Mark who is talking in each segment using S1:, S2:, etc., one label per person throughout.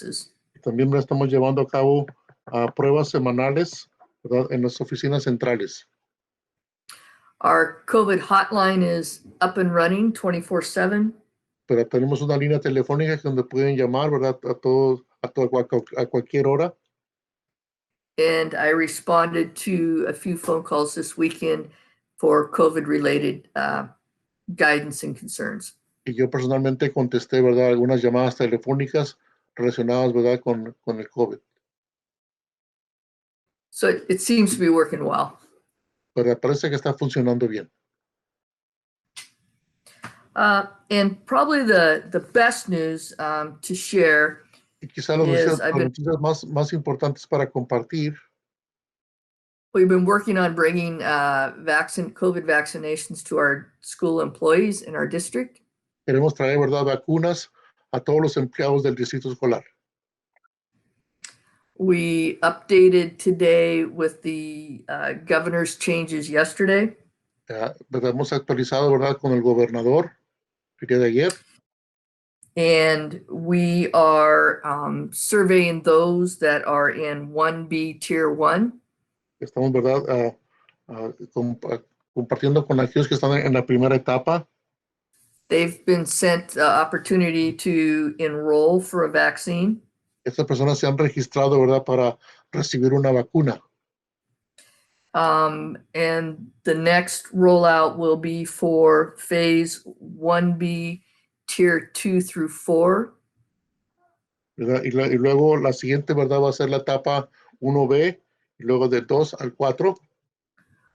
S1: purposes.
S2: También estamos llevando a cabo ah, pruebas semanales ¿verdad? en las oficinas centrales.
S1: Our COVID hotline is up and running 24 7.
S2: Pero tenemos una línea telefónica que donde pueden llamar ¿verdad? a todos a, to- a cual- a cualquier hora.
S1: And I responded to a few phone calls this weekend for COVID related uh, guidance and concerns.
S2: Y yo personalmente contesté ¿verdad? algunas llamadas telefónicas relacionadas ¿verdad? Con, con el COVID.
S1: So it, it seems to be working well.
S2: Pero parece que está funcionando bien.
S1: Uh, and probably the, the best news um, to share
S2: Y quizás las
S1: Yes,
S2: noticias,
S1: I've
S2: las
S1: been-
S2: noticias más, más importantes para compartir
S1: we've been working on bringing uh, vaccine COVID vaccinations to our school employees in our district.
S2: queremos traer verdad vacunas a todos los empleados del distrito escolar.
S1: We updated today with the uh, governor's changes yesterday.
S2: Ya, ¿verdad? Hemos actualizado verdad con el gobernador el día de ayer
S1: And we are um, surveying those that are in 1B Tier 1.
S2: estamos verdad ah, ah, compa- compartiendo con aquellos que están en la primera etapa
S1: They've been sent the opportunity to enroll for a vaccine.
S2: estas personas se han registrado verdad para recibir una vacuna
S1: Um, and the next rollout will be for Phase 1B Tier 2 through 4.
S2: ¿verdad? Y, la- y luego la siguiente verdad va a ser la etapa 1B y luego de 2 al 4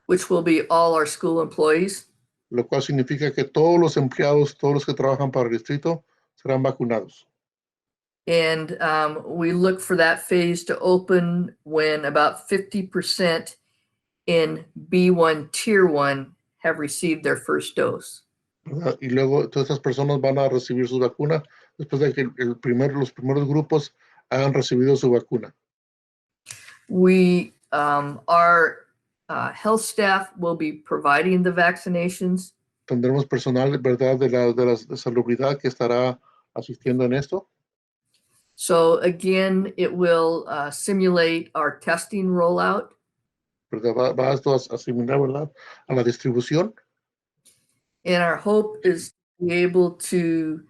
S1: Which will be all our school employees.
S2: lo cual significa que todos los empleados todos los que trabajan para el distrito serán vacunados
S1: And um, we look for that phase to open when about 50% in B1 Tier 1 have received their first dose.
S2: ¿verdad? Y luego todas estas personas van a recibir su vacuna después de que el- el primer, los primeros grupos hayan recibido su vacuna.
S1: We, um, our uh, health staff will be providing the vaccinations,
S2: Tendremos personal, ¿verdad?, de la, de la salubridad que estará asistiendo en esto.
S1: so again, it will uh, simulate our testing rollout.
S2: ¿verdad? Va, va esto a asimilar, ¿verdad?, a la distribución.
S1: And our hope is to be able to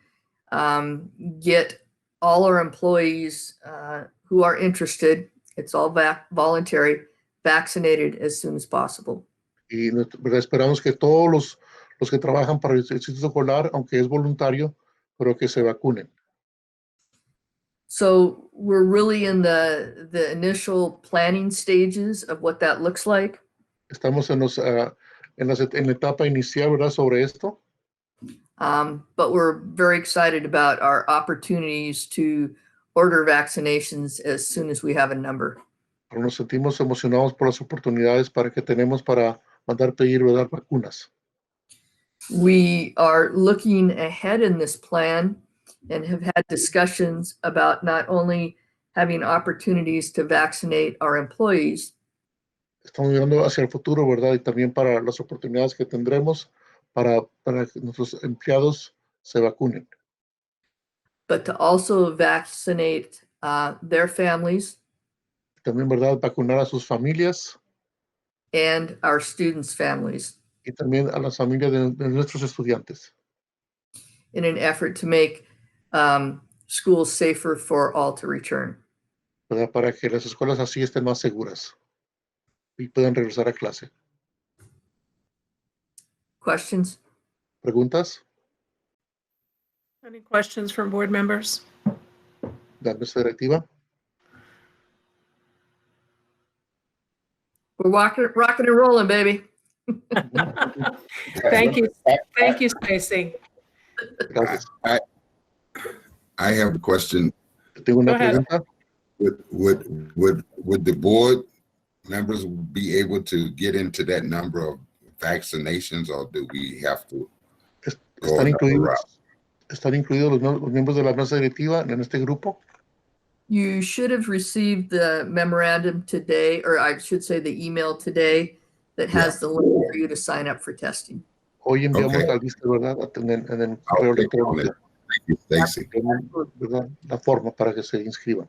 S1: um, get all our employees uh, who are interested, it's all vac- voluntary, vaccinated as soon as possible.
S2: Y nos- ¿verdad? esperamos que todos los, los que trabajan para el Instituto Escolar, aunque es voluntario, pero que se vacunen.
S1: So we're really in the, the initial planning stages of what that looks like.
S2: Estamos en, los, ah, en, las et- en la etapa inicial, ¿verdad?, sobre esto.
S1: Um, but we're very excited about our opportunities to order vaccinations as soon as we have a number.
S2: pero nos sentimos emocionados por las oportunidades para que tenemos para mandar pedir ¿verdad? vacunas.
S1: We are looking ahead in this plan and have had discussions about not only having opportunities to vaccinate our employees,
S2: Estamos mirando hacia el futuro, ¿verdad? Y también para las oportunidades que tendremos para, para que nuestros empleados se vacunen,
S1: but to also vaccinate uh, their families
S2: también, ¿verdad? Vacunar a sus familias
S1: and our students' families
S2: y también a las familias de, de nuestros estudiantes,
S1: in an effort to make um, schools safer for all to return.
S2: ¿verdad? Para que las escuelas así estén más seguras y puedan regresar a clase.
S1: Questions?
S2: ¿Preguntas?
S3: Any questions from board members?
S2: La mesa directiva.
S1: We're walking, rocking and rolling, baby.
S3: Thank you, thank you, Stacy.
S2: Gracias.
S4: I have a question.
S2: Tengo una
S3: Go ahead.
S2: pregunta.
S4: Would, would, would, would the board members be able to get into that number of vaccinations or do we have to?
S2: Es-
S4: go
S2: ¿Están
S4: another
S2: incluidos,
S4: route?
S2: ¿Están incluidos los, mie- los miembros de la mesa directiva en este grupo?
S1: You should have received the memorandum today, or I should say the email today that
S4: Yeah.
S1: has the link for you to sign up for testing.
S2: Hoy enviamos
S4: Ok.
S2: la lista, ¿verdad? En el, en el correo
S4: Okay,
S2: electrónico.
S4: Thank you, Stacy.
S2: ¿verdad? la forma para que se inscriban.